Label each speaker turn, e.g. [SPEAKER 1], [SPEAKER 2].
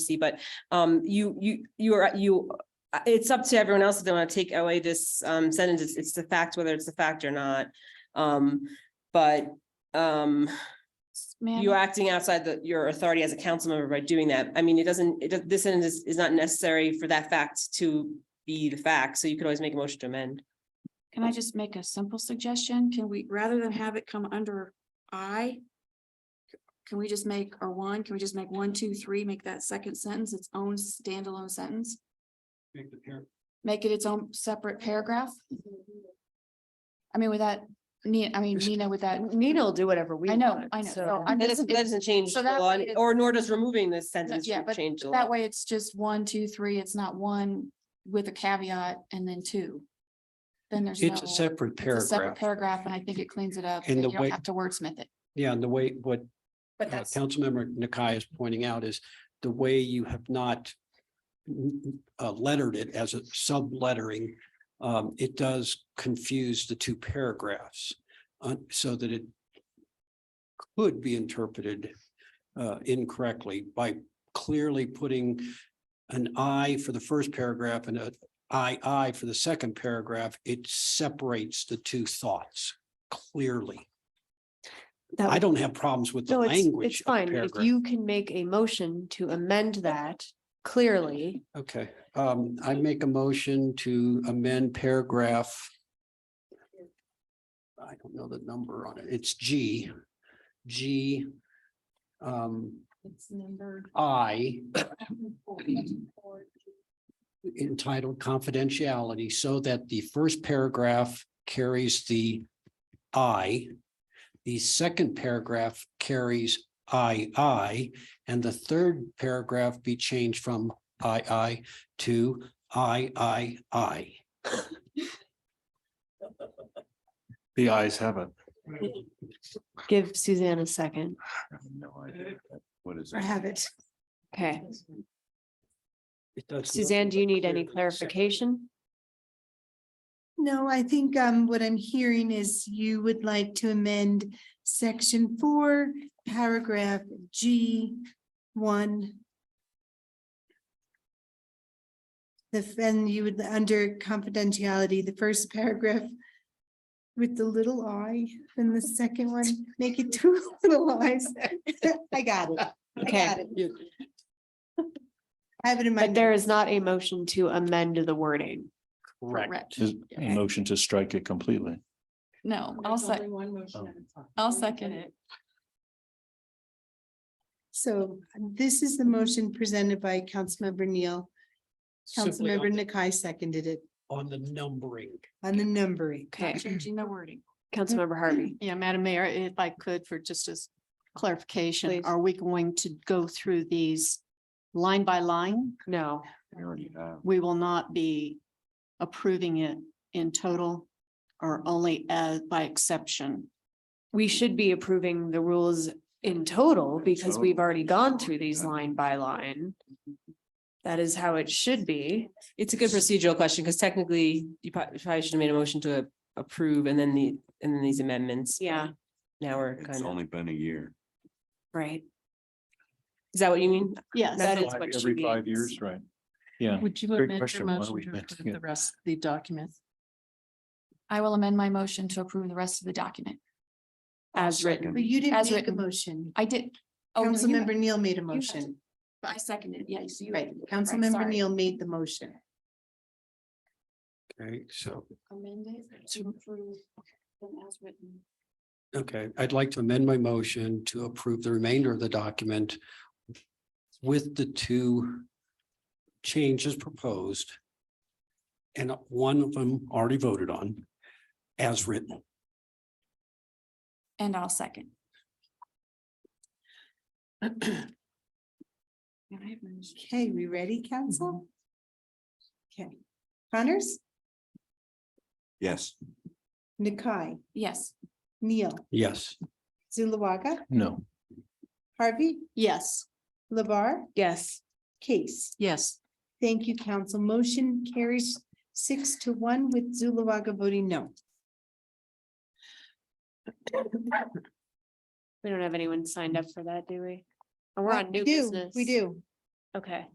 [SPEAKER 1] see, but um, you, you, you are, you, uh, it's up to everyone else if they want to take away this um sentence. It's, it's the fact, whether it's the fact or not. Um, but um,
[SPEAKER 2] Ma'am,
[SPEAKER 1] you acting outside the, your authority as a council member by doing that. I mean, it doesn't, it, does- this sentence is, is not necessary for that fact to be the fact, so you could always make a motion to amend.
[SPEAKER 2] can I just make a simple suggestion? Can we, rather than have it come under I? Can we just make, or one, can we just make one, two, three, make that second sentence its own standalone sentence?
[SPEAKER 3] Make the parent.
[SPEAKER 2] Make it its own separate paragraph? I mean, with that, Nina, I mean, Nina, with that,
[SPEAKER 4] Nina will do whatever we.
[SPEAKER 2] I know,
[SPEAKER 4] want,
[SPEAKER 2] I know,
[SPEAKER 4] so-
[SPEAKER 2] no, I'm
[SPEAKER 1] That
[SPEAKER 2] just-
[SPEAKER 1] doesn't, that doesn't change
[SPEAKER 2] so
[SPEAKER 1] the
[SPEAKER 2] that
[SPEAKER 1] law,
[SPEAKER 2] way it-
[SPEAKER 1] or nor does removing this sentence
[SPEAKER 2] yeah, but
[SPEAKER 1] change the law.
[SPEAKER 2] that way it's just one, two, three, it's not one with a caveat and then two. Then there's no.
[SPEAKER 3] It's a separate
[SPEAKER 2] it's a separate
[SPEAKER 3] paragraph.
[SPEAKER 2] Paragraph, and I think it cleans it up,
[SPEAKER 3] And
[SPEAKER 2] and
[SPEAKER 3] the
[SPEAKER 2] you don't
[SPEAKER 3] way-
[SPEAKER 2] have to wordsmith it.
[SPEAKER 3] Yeah, and the way what
[SPEAKER 4] But
[SPEAKER 3] uh,
[SPEAKER 4] that's,
[SPEAKER 3] Councilmember Nakai is pointing out is the way you have not mm, uh, lettered it as a sublettering, um, it does confuse the two paragraphs uh, so that it could be interpreted uh, incorrectly by clearly putting an I for the first paragraph and a I I for the second paragraph. It separates the two thoughts clearly.
[SPEAKER 4] that
[SPEAKER 3] I
[SPEAKER 4] would-
[SPEAKER 3] don't have problems with the
[SPEAKER 4] no, it's,
[SPEAKER 3] language.
[SPEAKER 4] it's
[SPEAKER 3] of the
[SPEAKER 4] fine. If
[SPEAKER 3] paragraph.
[SPEAKER 4] you can make a motion to amend that clearly,
[SPEAKER 3] Okay, um, I make a motion to amend paragraph. I don't know the number on it. It's G, G. Um,
[SPEAKER 2] It's numbered.
[SPEAKER 3] I entitled confidentiality so that the first paragraph carries the I. The second paragraph carries I, I, and the third paragraph be changed from I, I to I, I, I.
[SPEAKER 5] The eyes have it.
[SPEAKER 4] give Suzanne a second.
[SPEAKER 5] No idea. What is
[SPEAKER 2] I
[SPEAKER 5] it?
[SPEAKER 2] have it.
[SPEAKER 4] Okay,
[SPEAKER 3] It does nothing
[SPEAKER 4] Suzanne, do you
[SPEAKER 3] but
[SPEAKER 4] need any
[SPEAKER 3] clear the second.
[SPEAKER 4] clarification?
[SPEAKER 6] No, I think um what I'm hearing is you would like to amend section four, paragraph G one. The then you would, under confidentiality, the first paragraph with the little I, and the second one, make it two little eyes. I got it. I got
[SPEAKER 4] Okay,
[SPEAKER 6] it.
[SPEAKER 3] Yeah,
[SPEAKER 6] I have it in my.
[SPEAKER 4] but there is not a motion to amend the wording.
[SPEAKER 3] Correct.
[SPEAKER 5] Is a motion to strike it completely.
[SPEAKER 2] No, I'll sec- I'll second it.
[SPEAKER 6] So this is the motion presented by Councilmember Neal.
[SPEAKER 3] Simply
[SPEAKER 6] Councilmember
[SPEAKER 3] on the-
[SPEAKER 6] Nakai seconded it
[SPEAKER 3] on the numbering.
[SPEAKER 6] on the numbering.
[SPEAKER 4] Okay,
[SPEAKER 2] Changing the wording.
[SPEAKER 4] Councilmember Harvey.
[SPEAKER 7] Mm-hmm. Yeah, Madam Mayor, if I could for just as clarification,
[SPEAKER 4] Please.
[SPEAKER 7] are we going to go through these line by line?
[SPEAKER 4] No,
[SPEAKER 5] We already have.
[SPEAKER 7] We will not be approving it in total or only as by exception.
[SPEAKER 4] we should be approving the rules in total because we've already gone through these line by line. That is how it should be.
[SPEAKER 1] It's a good procedural question, because technically, you prob- you probably should have made a motion to approve and then the, and then these amendments. but
[SPEAKER 4] Yeah.
[SPEAKER 1] Now we're
[SPEAKER 5] It's
[SPEAKER 1] kind of,
[SPEAKER 5] only been a year.
[SPEAKER 4] Right.
[SPEAKER 1] is that what you mean?
[SPEAKER 7] Yes.
[SPEAKER 4] That is
[SPEAKER 5] Five-
[SPEAKER 4] what she
[SPEAKER 5] Every five
[SPEAKER 4] means.
[SPEAKER 5] years, right? Yeah.
[SPEAKER 7] Would you
[SPEAKER 5] Great amend your question. Why don't motion we to amend approve it? the
[SPEAKER 7] rest of the document?
[SPEAKER 2] I will amend my motion to approve the rest of the document.
[SPEAKER 4] As written.
[SPEAKER 6] But you didn't
[SPEAKER 2] As
[SPEAKER 6] make a
[SPEAKER 2] written.
[SPEAKER 6] motion.
[SPEAKER 2] I did. Oh, no, you
[SPEAKER 6] Councilmember
[SPEAKER 2] had-
[SPEAKER 6] Neal made a
[SPEAKER 2] had
[SPEAKER 6] motion,
[SPEAKER 2] I seconded, yeah, you see.
[SPEAKER 6] right? Councilmember
[SPEAKER 2] sorry.
[SPEAKER 6] Neal made the motion.
[SPEAKER 3] Okay, so
[SPEAKER 2] Amend it to approve them as written.
[SPEAKER 3] Okay, I'd like to amend my motion to approve the remainder of the document with the two changes proposed. And one of them already voted on as written.
[SPEAKER 2] And I'll second. And I have my motion. Mhm.
[SPEAKER 6] Okay, we ready, council? Okay, Connors,
[SPEAKER 5] Yes.
[SPEAKER 6] Nakai,
[SPEAKER 2] Yes,
[SPEAKER 6] Neal,
[SPEAKER 3] Yes,
[SPEAKER 6] Zulawaga,
[SPEAKER 5] No.
[SPEAKER 6] Harvey,
[SPEAKER 7] Yes.
[SPEAKER 6] Labar,
[SPEAKER 4] Yes.
[SPEAKER 6] Case.
[SPEAKER 7] Yes.
[SPEAKER 6] Thank you, council. Motion carries six to one with Zulawaga voting no.
[SPEAKER 4] We don't have anyone signed up for that, do we? Oh, We're
[SPEAKER 6] Uh,
[SPEAKER 4] on new
[SPEAKER 6] we do,
[SPEAKER 4] business.
[SPEAKER 6] We do.
[SPEAKER 4] Okay.